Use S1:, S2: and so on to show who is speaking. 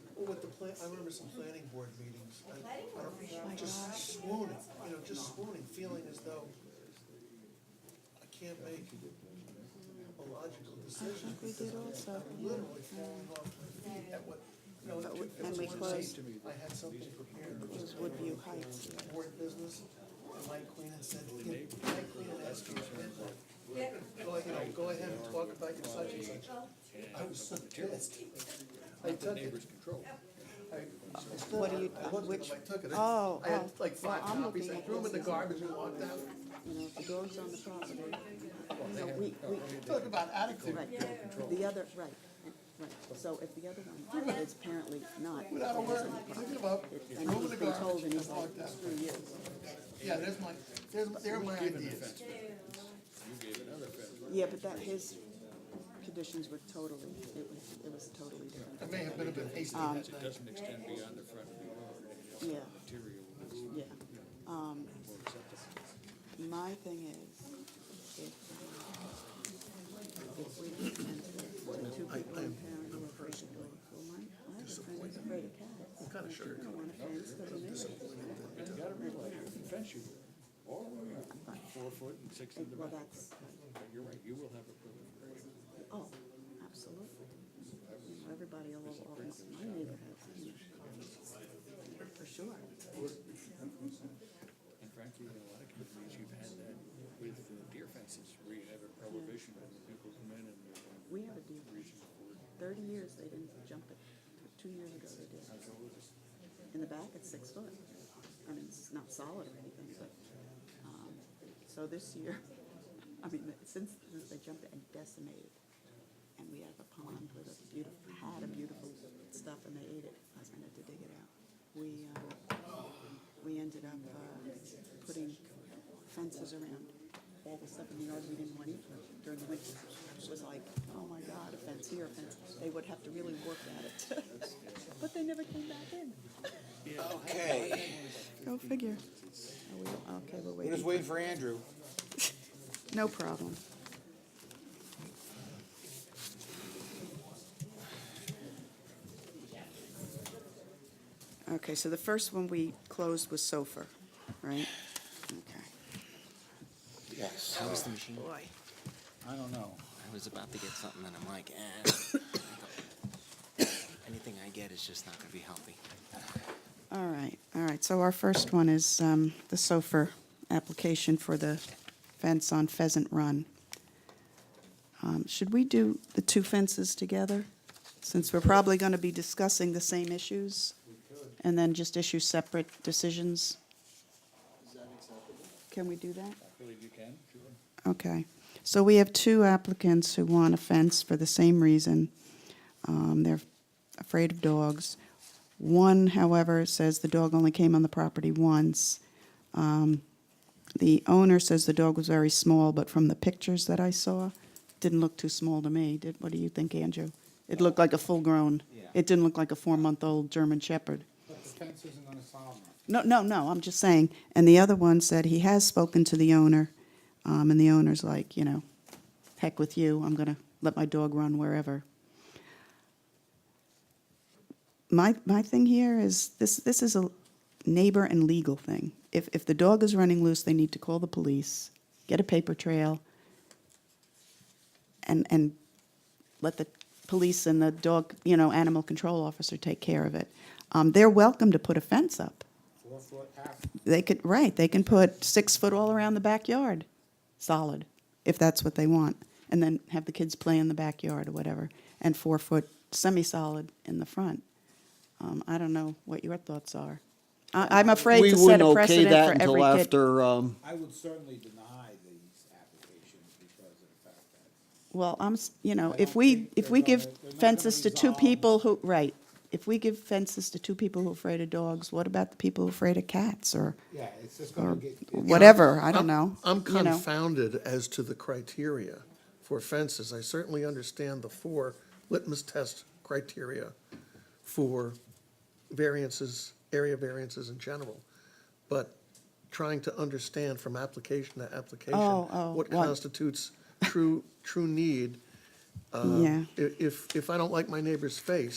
S1: pla- I remember some planning board meetings. I-
S2: Planning
S3: Oh
S2: board
S1: I-
S2: meeting. My God.
S1: Just swooning, you know, just swooning, feeling as though I can't make a logical decision.
S3: I think we did
S1: because I'm
S3: also, yeah.
S1: Literally falling off my feet at what, you know, it
S3: But
S1: took-
S3: we-
S1: it
S3: and
S1: was
S3: we
S1: one
S3: closed.
S1: day I had something prepared.
S3: It was Woodview Heights, yeah.
S1: Board business, and Mike Queen had said, you know, Mike Queen had asked me, at midnight,
S2: Yeah,
S1: go ahead, go ahead and talk about your such and such.
S2: well,
S1: I was so pissed. I took it. I- I still-
S3: What do you-
S1: I looked at them,
S3: which-
S1: I took it.
S3: oh,
S1: I had
S3: oh.
S1: like five
S3: Well, I'm
S1: copies,
S3: looking
S1: I
S3: at
S1: threw them in the
S3: this.
S1: garbage and walked out.
S3: You know, if the door's on the property, you know, we, we,
S1: Talk about attitude,
S3: right, the other, right, right. So if the other one is apparently not,
S1: without a word, I give up,
S3: and
S1: threw them in
S3: he's
S1: the
S3: been told
S1: garbage
S3: and
S1: and
S3: he's like,
S1: walked out.
S3: screw you.
S1: Yeah, there's my, there's, there are my ideas.
S3: Yeah, but that, his conditions were totally, it was, it was totally different.
S1: I may have been a bit hasty that night.
S4: Doesn't extend beyond the front yard,
S3: Um, Yeah,
S4: material is
S3: yeah. Um,
S4: more acceptable.
S3: my thing is, if, if we can enter the two people in town who are basically, well, my, my other friend is afraid of cats. What kind of sugar? don't want a fence, doesn't
S4: But you gotta realize, you can fence you all the way up, four foot and six in the
S3: Well,
S4: back.
S3: that's,
S4: But you're right, you will have a proliferation.
S3: oh, absolutely. You know, Everybody all over, my neighborhood, you know, for sure.
S4: And frankly, in a lot of communities, you've had that with uh, deer fences, where you have a prohibition and the people come in and
S3: We have a deal.
S4: there's reason for it.
S3: Thirty years they didn't jump it. Two years ago they did. In the back, it's six foot. I mean, it's not solid or anything, but, um, so this year, I mean, since, since they jumped it and decimated. And we have a pond with a beautiful, had a beautiful stuff and they ate it. I was gonna have to dig it out. We, um, we ended up, uh, putting fences around all the stuff in the yard we didn't want to eat during the winter. It was like, oh my God, a fence here, a fence. They would have to really work at it. But they never came back in.
S5: Okay,
S3: Go figure. Are we, okay, we're
S5: we're just
S3: waiting.
S5: waiting for Andrew.
S3: No problem. Okay, so the first one we closed was SOFR, right? Okay.
S5: Yes.
S6: How was the machine?
S3: Boy.
S5: I don't know.
S6: I was about to get something and I'm like, eh. Anything I get is just not gonna be healthy.
S3: All right, all right. So our first one is um, the SOFR application for the fence on Pheasant Run. Um, Should we do the two fences together? Since we're probably going to be discussing the same issues? And then just issue separate decisions? Can we do that?
S4: I believe you can, sure.
S3: Okay. So we have two applicants who want a fence for the same reason. Um, They're afraid of dogs. One, however, says the dog only came on the property once. Um, The owner says the dog was very small, but from the pictures that I saw, didn't look too small to me. Did, what do you think, Andrew? It looked like a full-grown.
S5: Yeah.
S3: It didn't look like a four-month-old German Shepherd.
S5: But the fence isn't gonna solve
S3: No, no, no, I'm just saying. And the other one said he has spoken to the owner, um, and the owner's like, you know, heck with you, I'm gonna let my dog run wherever. My, my thing here is, this, this is a neighbor and legal thing. If, if the dog is running loose, they need to call the police, get a paper trail, and, and let the police and the dog, you know, animal control officer take care of it. Um, they're welcome to put a fence up.
S5: Four foot half.
S3: They could, right, they can put six foot all around the backyard, solid, if that's what they want. And then have the kids play in the backyard or whatever, and four foot semi-solid in the front. Um, I don't know what your thoughts are. I, I'm afraid
S7: We
S3: to set
S7: wouldn't
S3: a
S7: okay
S3: precedent
S7: that
S3: for
S7: until
S3: every kid.
S7: after, um,
S5: I would certainly deny these applications because of the fact that.
S3: Well, I'm, s- you know,
S5: I
S3: if
S5: don't
S3: we,
S5: think
S3: if
S5: they're
S3: we
S5: gonna-
S3: give
S5: they're not gonna
S3: fences to two
S5: resolve-
S3: people who, right, if we give fences to two people who are afraid of dogs, what about the people who are afraid of cats or,
S5: Yeah, it's just
S3: or
S5: gonna get.
S3: whatever, I don't know.
S1: I'm
S3: you know?
S8: confounded as to the criteria for fences. I certainly understand the four litmus test criteria for variances, area variances in general, but trying to understand from application to application
S3: Oh, oh,
S8: what
S3: what-
S8: constitutes true, true need. uh,
S3: Yeah.
S8: I- If, if I don't like my neighbor's face,